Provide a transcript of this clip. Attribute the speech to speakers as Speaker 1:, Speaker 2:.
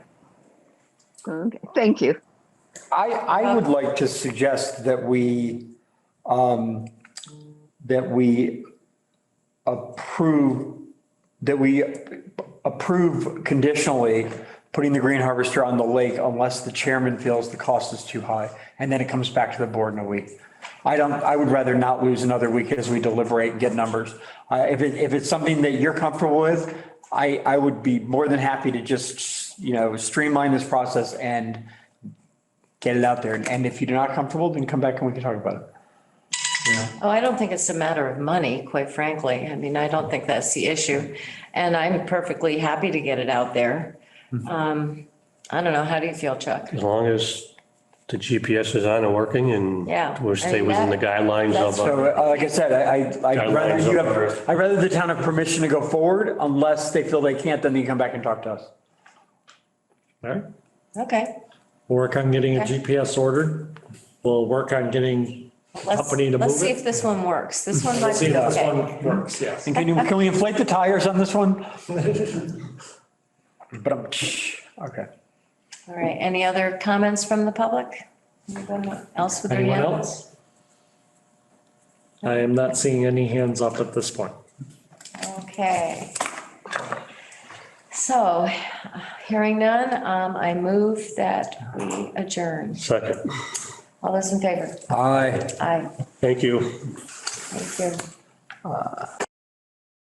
Speaker 1: Okay, thank you.
Speaker 2: I, I would like to suggest that we, um, that we approve, that we approve conditionally putting the green harvester on the lake unless the chairman feels the cost is too high. And then it comes back to the board in a week. I don't, I would rather not lose another week as we deliberate and get numbers. I if it, if it's something that you're comfortable with, I, I would be more than happy to just, you know, streamline this process and get it out there. And if you're not comfortable, then come back and we can talk about it.
Speaker 3: Oh, I don't think it's a matter of money, quite frankly. I mean, I don't think that's the issue. And I'm perfectly happy to get it out there.
Speaker 4: Mm-hmm.
Speaker 3: Um, I don't know. How do you feel, Chuck?
Speaker 5: As long as the GPS is on and working and
Speaker 3: Yeah,
Speaker 5: we
Speaker 3: I
Speaker 5: stay
Speaker 3: mean,
Speaker 5: within the
Speaker 3: that-
Speaker 5: guidelines
Speaker 3: that's-
Speaker 5: of,
Speaker 2: So
Speaker 5: uh,
Speaker 2: uh, like I said, I, I- I'd rather you have, I'd rather the town have permission to go forward unless they feel they can't, then they come back and talk to us.
Speaker 4: All right,
Speaker 3: Okay.
Speaker 4: we'll work on getting a
Speaker 3: Okay.
Speaker 4: GPS ordered. We'll work on getting
Speaker 3: Let's,
Speaker 4: company to
Speaker 3: let's
Speaker 4: move
Speaker 3: see if
Speaker 4: it.
Speaker 3: this one works. This one might
Speaker 4: See
Speaker 3: be
Speaker 4: if this
Speaker 3: okay.
Speaker 4: one works, yes.
Speaker 2: And can you, can we inflate the tires on this one? But I'm, okay.
Speaker 3: All right. Any other comments from the public? Anybody else with their
Speaker 4: Anyone
Speaker 3: hands?
Speaker 4: else? I am not seeing any hands up at this point.
Speaker 3: Okay. So, hearing none, um, I move that we adjourn.
Speaker 5: second.
Speaker 3: All those in favor?
Speaker 2: Aye.
Speaker 3: Aye.
Speaker 5: Thank you.
Speaker 3: Thank you.